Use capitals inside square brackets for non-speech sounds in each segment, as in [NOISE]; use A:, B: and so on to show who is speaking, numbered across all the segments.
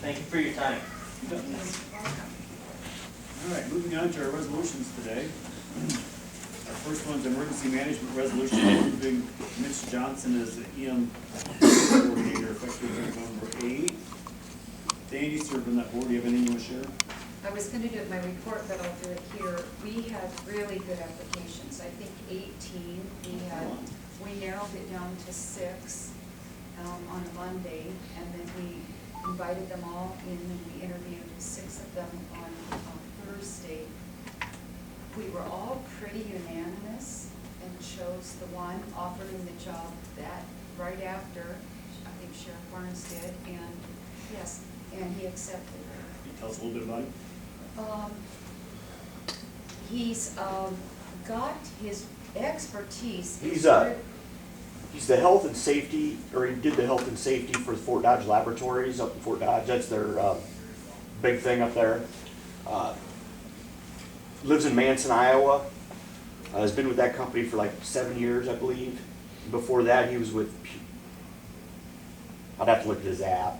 A: Thank you for your time.
B: All right, moving on to our resolutions today. [CLEARS THROAT] Our first one's emergency management resolution, approving Mitch Johnson as the EM coordinator effective November eighth. Danny served on that board, do you have anything you want to share?
C: I was gonna do it in my report, but I'll do it here. We had really good applications, I think eighteen. We had, we narrowed it down to six, um, on Monday, and then we invited them all in, and we interviewed six of them on, on Thursday. We were all pretty unanimous and chose the one, offered him the job that, right after, I think Sheriff Barnes did, and, yes, and he accepted it.
B: Can you tell us a little bit about it?
C: Um, He's um, got his expertise.
D: He's, uh, He's the health and safety, or he did the health and safety for Fort Dodge Laboratories up in Fort Dodge. That's their uh, big thing up there. Uh, Lives in Manson, Iowa. Uh, Has been with that company for like seven years, I believe. Before that, he was with, P- I'd have to look at his app.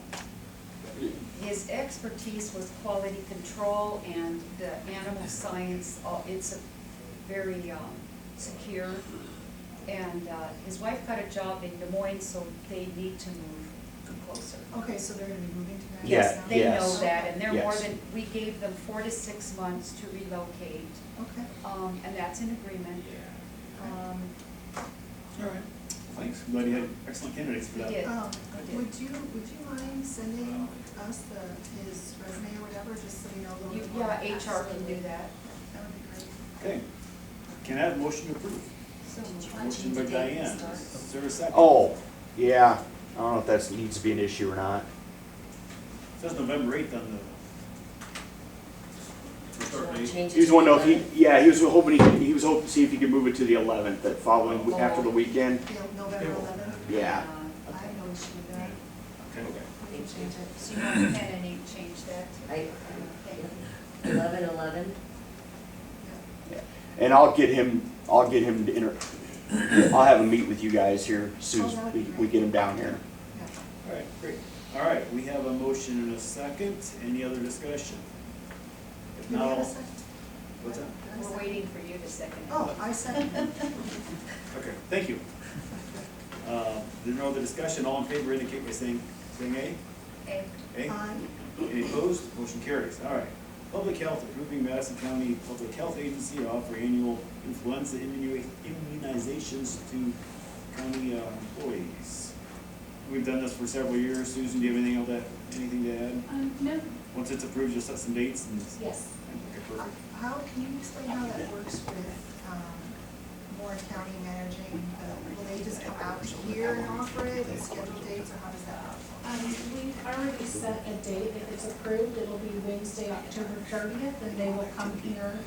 C: His expertise was quality control and the animal science, all- it's a very um, secure. And uh, his wife got a job in Des Moines, so they need to move closer.
E: Okay, so they're gonna be moving to that?
D: Yeah,
C: Yes, they know
D: yes.
C: that, and they're more
D: Yes.
C: than, we gave them four to six months to relocate,
E: Okay,
C: um, and that's in agreement. Um,
E: all right.
B: Thanks, I'm glad you had excellent candidates for
C: We
B: that.
C: did.
E: Um,
C: Okay.
E: would you, would you mind sending us the, his resume or whatever, just so we know a little
C: You-
E: bit more?
C: Yeah, HR can do that.
E: That would be great.
B: Okay, can I have a motion to approve?
C: So
B: Motion by Diane, is there a second?
D: Oh, yeah. I don't know if that needs to be an issue or not.
B: It Says November eighth on the. Start date.
D: He was wondering if he, yeah, he was hoping, he could- he was hoping to see if he could move it to the 11th, that following, w- after the weekend.
E: You know, November eleventh?
D: Yeah.
C: uh,
E: I have no issue with that.
B: Okay.
E: We can change it.
C: So you want Ken and Nate change that?
F: I, eleven, eleven,
E: Yeah.
D: And I'll get him, I'll get him to inter, I'll have him meet with you guys here as soon as we, we get him down here.
E: Yeah.
B: All right, great. All right, we have a motion and a second. Any other discussion? If
E: Do we
B: not,
E: have a
B: all-
E: second?
B: what's that?
E: Did I
C: We're
E: second?
C: waiting
E: [LAUGHS]
C: for you to second it.
E: Oh, I second.
B: Okay, thank you. Uh, There's no other discussion. All in favor indicate by saying, saying aye.
C: [LAUGHS] Okay.
B: Aye.
E: Aye.
B: Any opposed? Motion carries. All right. Public Health approving Madison County Public Health Agency to offer annual influenza immunu- immunizations to county uh, employees. We've done this for several years. Susan, do you have anything else that, anything to add?
G: Um, no,
B: Once it's approved, just set some dates and.
G: yes.
B: Okay,
E: Uh,
B: perfect.
E: How, can you explain how that works with, um, Warren County managing, the- will they just come out here and offer it, and schedule dates, or how does that work?
G: Um, we've already set a date, if it's approved, it'll be Wednesday, October thirtieth, and they will come here.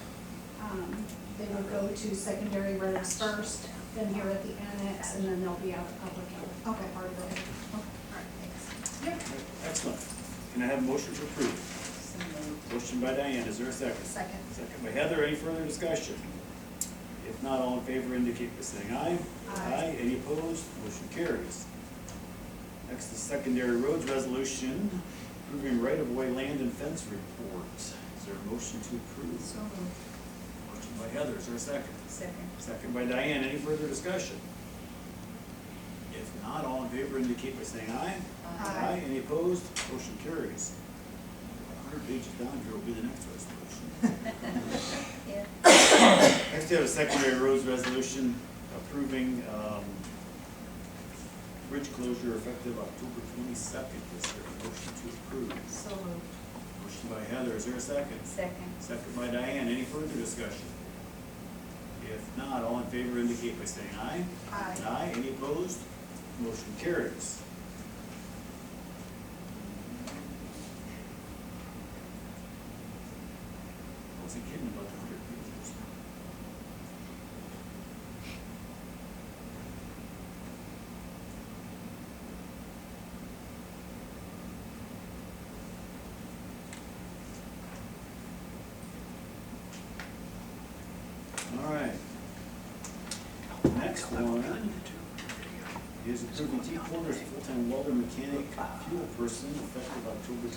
G: Um, they will go to secondary roads first, then here at the annex, and then they'll be out at public health.
E: Okay, part of it. Okay, all right, thanks.
B: Excellent. Can I have a motion to approve?
C: So moved.
B: Motion by Diane, is there a second?
E: Second.
B: Second by Heather, any further discussion? If not, all in favor indicate by saying aye.
E: Aye.
B: Any opposed? Motion carries. Next is secondary roads resolution, approving right-of-way land and fence report. Is there a motion to approve?
E: So moved.
B: Motion by Heather, is there a second?
C: Second.
B: Second by Diane, any further discussion? If not, all in favor indicate by saying aye.
E: Aye.
B: Any opposed? Motion carries. A hundred pages down here will be the next resolution.
C: Yeah.
B: Next, we have a secondary roads resolution approving, um, bridge closure effective October twenty-second. Is there a motion to approve?
C: So moved.
B: Motion by Heather, is there a second?
C: Second.
B: Second by Diane, any further discussion? If not, all in favor indicate by saying aye.
E: Aye.
B: Aye, any opposed? Motion carries. I wasn't kidding about the hundred pages. All right. Next one is approving T Porter's full-time welder mechanic fuel person effective October